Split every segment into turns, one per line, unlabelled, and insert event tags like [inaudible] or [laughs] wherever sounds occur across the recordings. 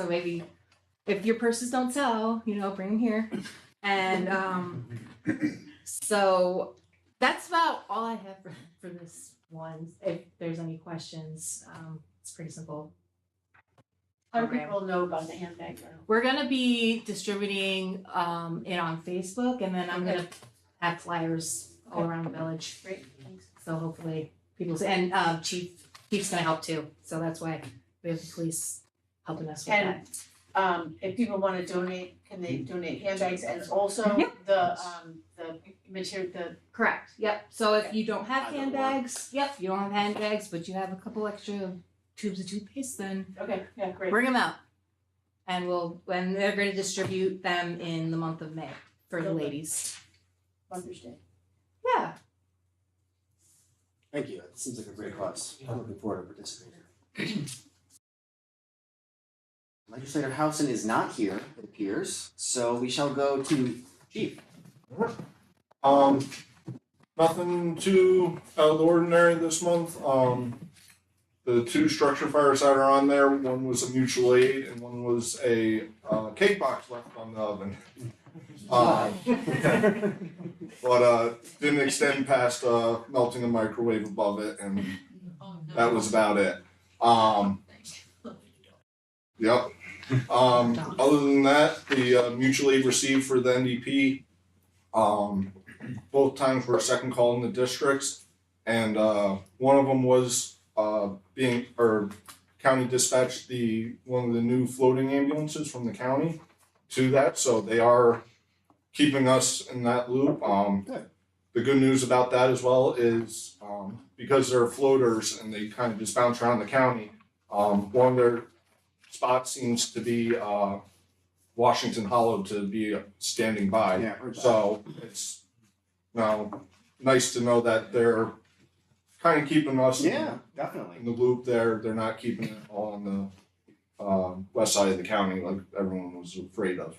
So maybe if your purses don't sell, you know, bring them here. And um, so that's about all I have for, for this one. If there's any questions, um, it's pretty simple.
How do
program.
people know about the handbag now?
We're gonna be distributing um, it on Facebook, and then I'm gonna have flyers all around the village.
Great, thanks.
So hopefully people, say- and um chief, chief's gonna help too, so that's why we have the police helping us with that.
And um if people wanna donate, can they donate handbags and also
Yeah.
the um the material, the
Correct, yep, so if you don't have
Either one.
handbags, yep, you don't have handbags, but you have a couple extra tubes of toothpaste, then
okay, yeah, great.
bring them out. And we'll, and they're gonna distribute them in the month of May for the
Okay.
ladies.
Mother's Day.
Yeah,
Thank you, it seems like a great cause, I'm looking forward to participating. Legislator Housen is not here, it appears, so we shall go to Chief.
Um, nothing too out of the ordinary this month. Um, the two structure fires that are on there, one was a mutual aid and one was a uh, cake box left on the oven. Uh, [laughs] but uh, didn't extend past uh, melting the microwave above it, and that was about it. Um, yep. Um, other than that, the uh, mutual aid received for the NDP. Um, both times were second call in the districts, and uh, one of them was uh, being or county dispatched the one of the new floating ambulances from the county to that, so they are keeping us in that loop. Um,
Good.
the good news about that as well is um, because they're floaters and they kind of just bounce around the county. Um, one of their spots seems to be uh, Washington Hollow to be standing by.
Yeah, we're back.
So it's now nice to know that they're kind of keeping us in-
Yeah,
in
definitely.
the loop there. They're not keeping it all on the um, west side of the county like everyone was afraid of.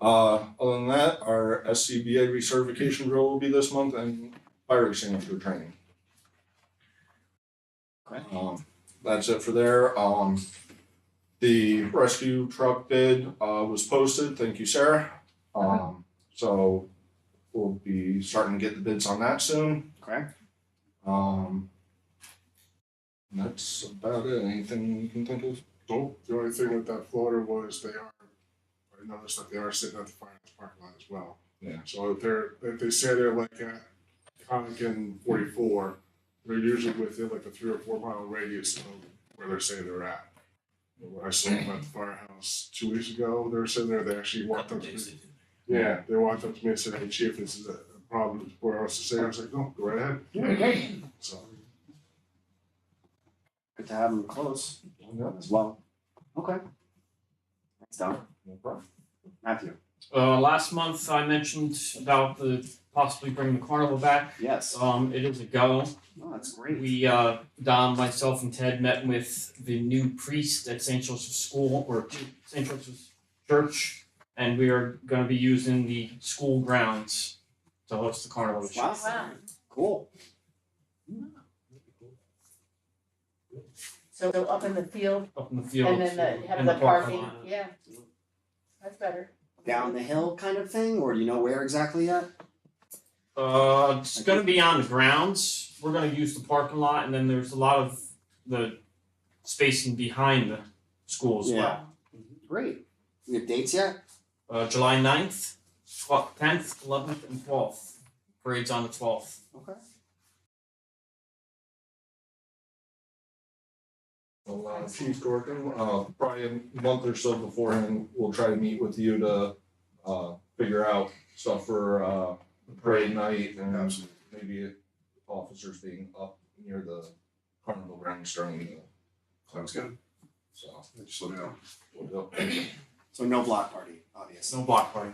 Uh, other than that, our SCBA recertification drill will be this month and fire extinguisher training.
Okay.
Um, that's it for there. Um, the rescue truck bid, uh, was posted. Thank you, Sarah. Um, so we'll be starting to get the bids on that soon.
Okay.
Um, and that's about it. Anything you can think of?
Nope, the only thing with that floater was they are, I noticed that they are sitting at the fireman's parking lot as well.
Yeah.
So if they're, if they say they're like at Conic and forty-four, they're usually within like a three or four mile radius of where they're saying they're at. When I saw them at the firehouse two weeks ago, they were sitting there, they actually walked up to me. Yeah, they walked up to me and said, hey chief, this is a problem for us to say, I was like, no, go right ahead. So,
Good to have them close
No,
as well. Okay. Thanks, Don.
no problem.
Matthew,
Uh, last month I mentioned about the possibly bringing the carnival back.
yes. Oh,
Um, it is a go.
that's great.
We, uh, Dom, myself and Ted met with the new priest at St. Joseph's School or St. Joseph's Church. And we are gonna be using the school grounds to host the carnival this year.
Wow. Cool.
So up in the field
up in the
and
field
then the have
and
the
the parking
parking,
lot.
yeah. That's better.
Down the hill kind of thing, or do you know where exactly yet?
Uh, it's gonna be on the grounds, we're gonna use the parking lot, and then there's a lot of the spacing behind the school as well.
Great. We have dates yet?
Uh, July ninth, twelfth, tenth, eleventh, and twelfth, parade's on the twelfth.
Okay.
Well, uh, Chief Dorkin, uh, probably a month or so beforehand, we'll try to meet with you to, uh, figure out stuff for, uh, parade night and maybe officers being up near the carnival grounds during the,
sounds good,
so.
just let me know.
we'll do.
So no block party, obviously.
No block party.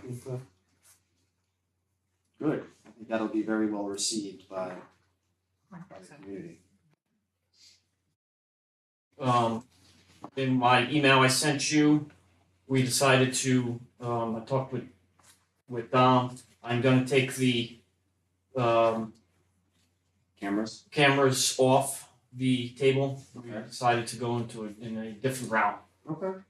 Good. I think that'll be very well received by, by the
So-
community.
Um, in my email I sent you, we decided to, um, I talked with, with Dom, I'm gonna take the, um,
Cameras?
cameras off the table. We
Okay.
decided to go into a, in a different route.
Okay.